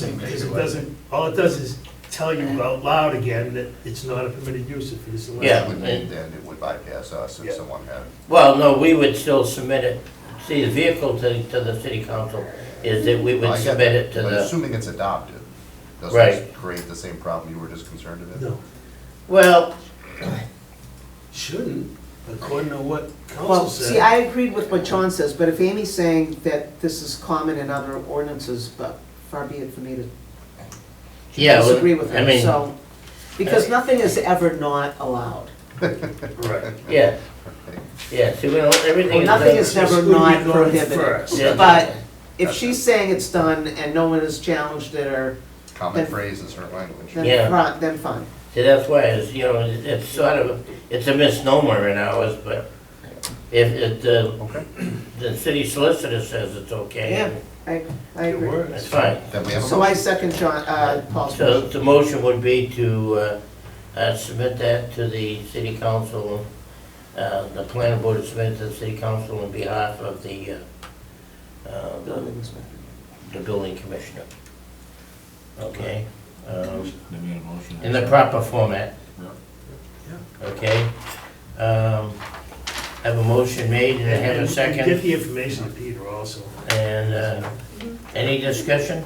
doesn't- It doesn't, all it does is tell you out loud again that it's not a permitted use if it is allowed. Yeah. would mean then it would bypass us Yeah. if someone had. Well, no, we would still submit it, see, the vehicle to, to the city council is that we I would get submit it to But the, assuming it's adopted, Right. doesn't create the same problem you were just concerned about? No, well, shouldn't, according to what council Well, see, said. I agreed with what John says, but if Amy's saying that this is common in other ordinances, but far be it for me to yeah, well, disagree with I her, mean, uh, so. Because nothing is ever not allowed. Right. yeah, yeah, see, we don't, everything is. Nothing done- is never Excluding not non prohibited. first. yeah. But if she's saying it's done and no one has challenged it or, Common Then- phrase is her language. Yeah. then fine, then fine. See, that's why, it's, you know, it- it's sort of, it's a misnomer in ours, but if, if the, Okay. the city solicitor says it's Yeah, okay, I, I It agree. that's works. fine. Then we have a So I motion. second John, uh, Paul's So motion. the motion would be to uh, uh, submit that to the city council, uh, the planning board is submitted to the city council on behalf of the, uh, uh, Building inspector. the building commissioner. Okay? Um, Then we had a motion. In the proper format. Okay? Um, I Have a motion made and I have And- a and Get second. the information to Peter also. And uh, any discussion?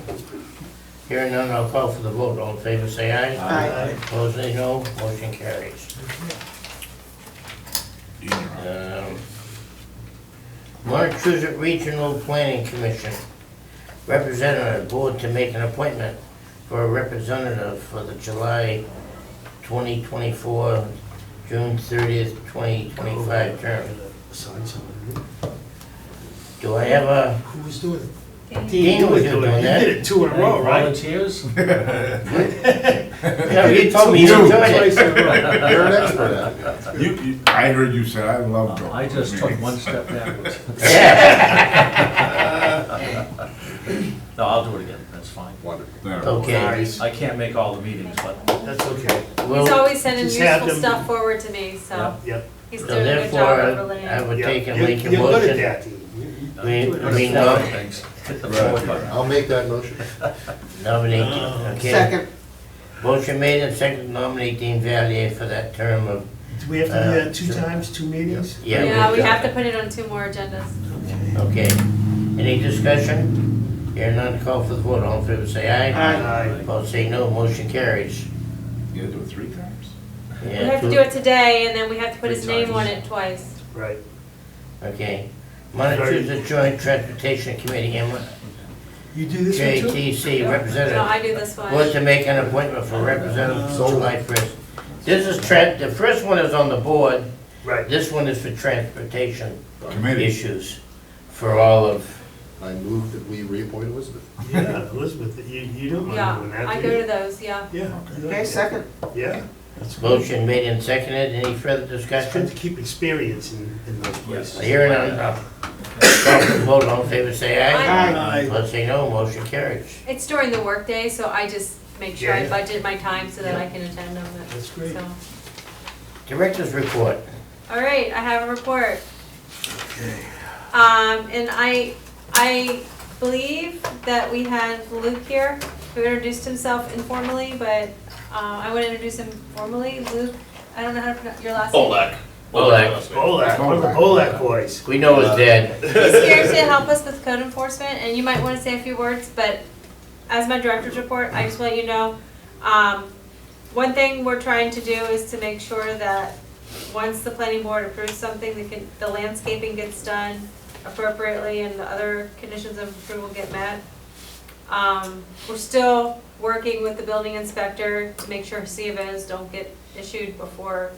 Hearing none, I'll call for the vote. All in favor, say aye. Aye. Opposed, nay, no. Motion carries. Um, Montezut Regional Planning Commission, representative, board to make an appointment for a representative for the July 2024, June 30th, 2025 term. Sign someone. Do I have a, Who was doing it? Dean was doing You did that? it two in a row, right? Volunteers? No, you told me you You. enjoyed it. You're an expert at it. You, you, I heard you said, I love going. Uh, I just took one step backwards. Yeah, No, I'll do it again, that's fine. Wonderful. No. okay. I can't make all the meetings, but uh, That's okay, Well, He's always sending Just have useful them- stuff forward to me, so yep. he's so doing a good job of Therefore, I relaying. would yep. take and You're- make a You're good at that, motion. Dean. I mean, I mean, nom- things, hit the forward button. I'll make that motion. nominate, okay. Second, Motion made and second nominate Dean Valier for that term of, Do we have to do that two Uh, times, two meetings? yeah. Yeah, we have to put it on two more agendas. Okay, any discussion? Hearing none, call for the vote, all in favor say aye. Aye. Opposed say no, motion carries. You had to do it three times? We have to do it today, and then we have to put his Three name on times. it twice. Right. Okay. Montezuma Joint Transportation Committee, M- You do this one too? JTC No, representative, I do this one. was to make an appointment for representative July first. This is tran, the first one is on the board, Right. this one is for transportation Committee. issues for all of, I move that we reappoint Elizabeth. Yeah, Elizabeth, you, you don't mind doing Yeah, that, I do go you? to those, yeah. Yeah. you okay, like second. that. Yeah. That's good. motion made and seconded, any further It's good discussion? to keep experience in, in those places. Hearing none, uh, call for the vote, all in favor say aye. Aye. Let's say no, motion carries. It's during the workday, so I just make sure I Yeah. budget my time so that I can attend them. That's great. So- Director's report. All right, I have a report. Um, and I, I believe that we had Luke here, who introduced himself informally, but, um, I want to introduce him formally. Luke, I don't know how to pronounce your last name. Olak. Olak. Olak, one of the Olak boys. We know it's dead. He's here to help us with code enforcement, and you might want to say a few words, but as my director's report, I just want you to know, um, one thing we're trying to do is to make sure that once the planning board approves something, the con- the landscaping gets done appropriately and the other conditions of approval get met. Um, we're still working with the building inspector to make sure CVAs don't get issued before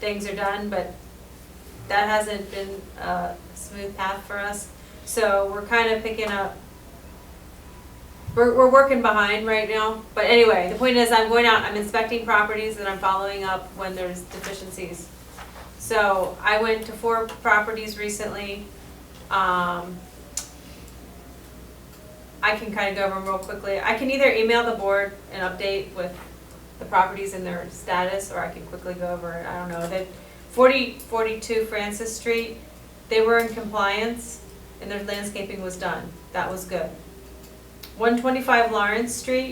things are done, but that hasn't been a smooth path for us. So we're kind of picking up, we're, we're working behind right now. But anyway, the point is I'm going out, I'm inspecting properties and I'm following up when there's deficiencies. So I went to four properties recently. Um, I can kind of go over them real quickly. I can either email the board an update with the properties and their status, or I can quickly go over it. I don't know. They, 40, 42 Francis Street, they were in compliance and their landscaping was done. That was good. one twenty-five Lawrence Street